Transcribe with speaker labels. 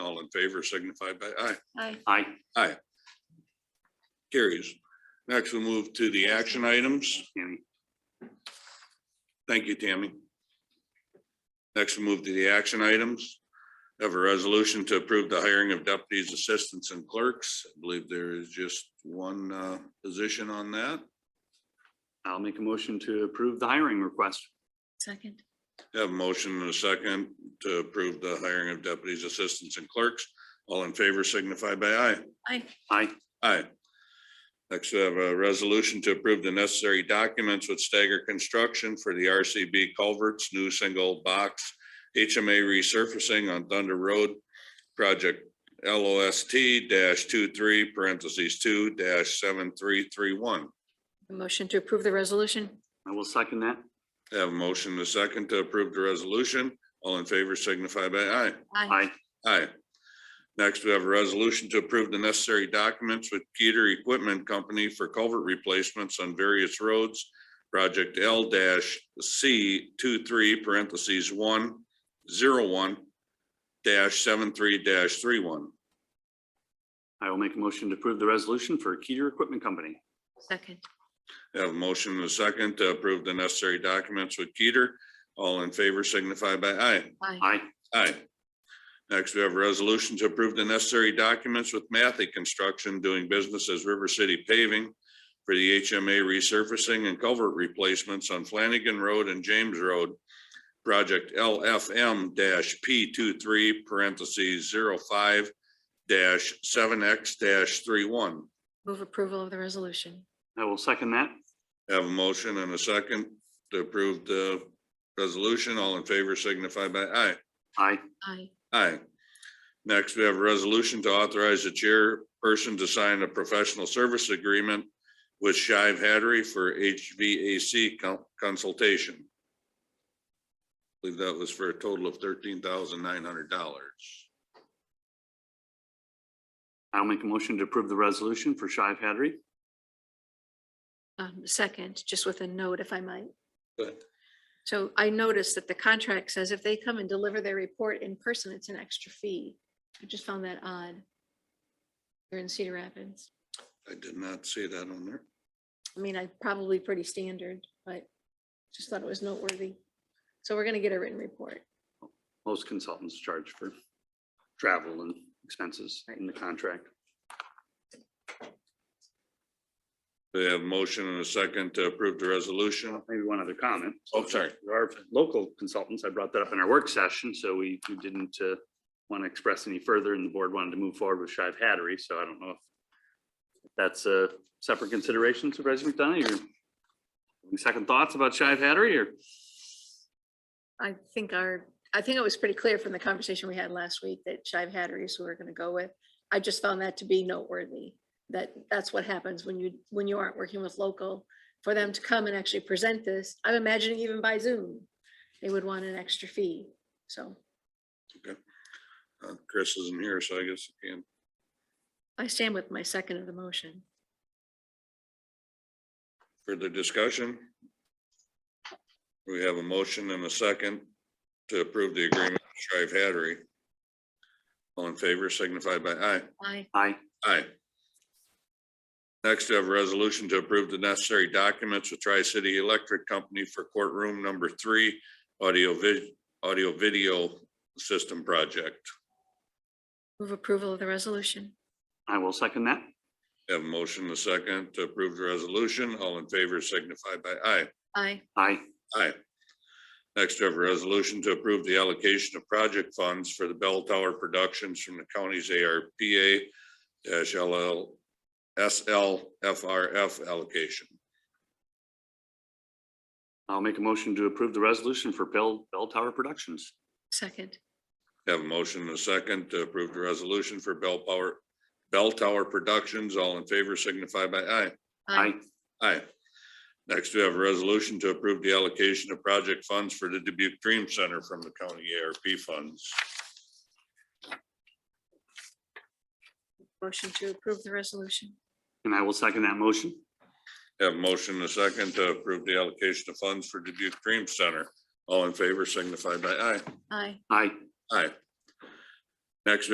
Speaker 1: favor signify by aye.
Speaker 2: Aye.
Speaker 3: Aye.
Speaker 1: Carries. Next, we'll move to the action items.
Speaker 3: Tammy.
Speaker 1: Thank you, Tammy. Next, we'll move to the action items. Have a resolution to approve the hiring of deputies, assistants, and clerks. I believe there is just one uh, position on that.
Speaker 3: I'll make a motion to approve the hiring request.
Speaker 2: Second.
Speaker 1: Have a motion and a second to approve the hiring of deputies, assistants, and clerks. All in favor signify by aye.
Speaker 2: Aye.
Speaker 3: Aye.
Speaker 1: Aye. Next, we have a resolution to approve the necessary documents with stagger construction for the RCB culverts, new single box HMA resurfacing on Thunder Road, project LOST dash two three parentheses two dash seven three three one.
Speaker 2: A Motion to approve the resolution.
Speaker 3: I will second that.
Speaker 1: Have a motion and a second to approve the resolution. All in favor signify by aye.
Speaker 3: Aye.
Speaker 1: Aye. Next, we have a resolution to approve the necessary documents with Peter Equipment Company for culvert replacements on various roads. Project L dash C 23 parentheses one zero one dash seven three dash three one.
Speaker 3: I will make a motion to approve the resolution for Keter Equipment Company.
Speaker 2: Second.
Speaker 1: Have a motion and a second to approve the necessary documents with Peter. All in favor signify by aye.
Speaker 2: Aye.
Speaker 3: Aye.
Speaker 1: Aye. Next, we have a resolution to approve the necessary documents with Mathy Construction doing business as River City Paving for the HMA resurfacing and culvert replacements on Flanagan Road and James Road. Project LFM P 23 parentheses zero five seven X 31
Speaker 2: Move approval of the resolution.
Speaker 3: I will second that.
Speaker 1: Have a motion and a second to approve the resolution. All in favor signify by aye.
Speaker 3: Aye.
Speaker 2: Aye.
Speaker 1: Aye. Next, we have a resolution to authorize the chairperson to sign a professional service agreement with Shive Hattery for HVAC con- consultation. I Believe that was for a total of thirteen thousand nine hundred dollars.
Speaker 3: I'll make a motion to approve the resolution for Shive Hattery.
Speaker 2: Um, second, just with a note if I might.
Speaker 1: But
Speaker 2: So I noticed that the contract says if they come and deliver their report in person, it's an extra fee. I just found that odd. They're in Cedar Rapids.
Speaker 1: I did not see that on there.
Speaker 2: I mean, I probably pretty standard, but just thought it was noteworthy. So we're gonna get a written report.
Speaker 3: Most consultants charge for travel and expenses in the contract.
Speaker 1: We have a motion and a second to approve the resolution.
Speaker 3: Maybe one other comment.
Speaker 1: Oh, sorry.
Speaker 3: There are local consultants. I brought that up in our work session, so we we didn't want to express any further and the board wanted to move forward with Shive Hattery, so I don't know if that's a separate consideration, Supervisor McDonough, your any second thoughts about Shive Hattery or?
Speaker 2: I think our, I think it was pretty clear from the conversation we had last week that Shive Hattery is who we're gonna go with. I just found that to be noteworthy, that that's what happens when you, when you aren't working with local. For them to come and actually present this, I'm imagining even by Zoom, they would want an extra fee, so
Speaker 1: Uh, Chris isn't here, so I guess I can.
Speaker 2: I stand with my second of the motion.
Speaker 1: Further discussion? We have a motion and a second to approve the agreement with Strive Hattery. All in favor signify by aye.
Speaker 2: Aye.
Speaker 3: Aye.
Speaker 1: Aye. Next, we have a resolution to approve the necessary documents with Tri-City Electric Company for courtroom number three, audio vid, audio video system project.
Speaker 2: Move approval of the resolution.
Speaker 3: I will second that.
Speaker 1: Have a motion and a second to approve the resolution. All in favor signify by aye.
Speaker 2: Aye.
Speaker 3: Aye.
Speaker 1: Aye. Next, we have a resolution to approve the allocation of project funds for the bell tower productions from the county's ARPA dash LL, SLFRF allocation.
Speaker 3: I'll make a motion to approve the resolution for Bell Bell Tower Productions.
Speaker 2: Second.
Speaker 1: Have a motion and a second to approve the resolution for bell power, bell tower productions. All in favor signify by aye.
Speaker 3: Aye.
Speaker 1: Aye. Next, we have a resolution to approve the allocation of project funds for the Dubuque Dream Center from the county ARP funds.
Speaker 2: Motion to approve the resolution.
Speaker 3: And I will second that motion.
Speaker 1: Have a motion and a second to approve the allocation of funds for Dubuque Dream Center. All in favor signify by aye.
Speaker 2: Aye.
Speaker 3: Aye.
Speaker 1: Aye. Next, we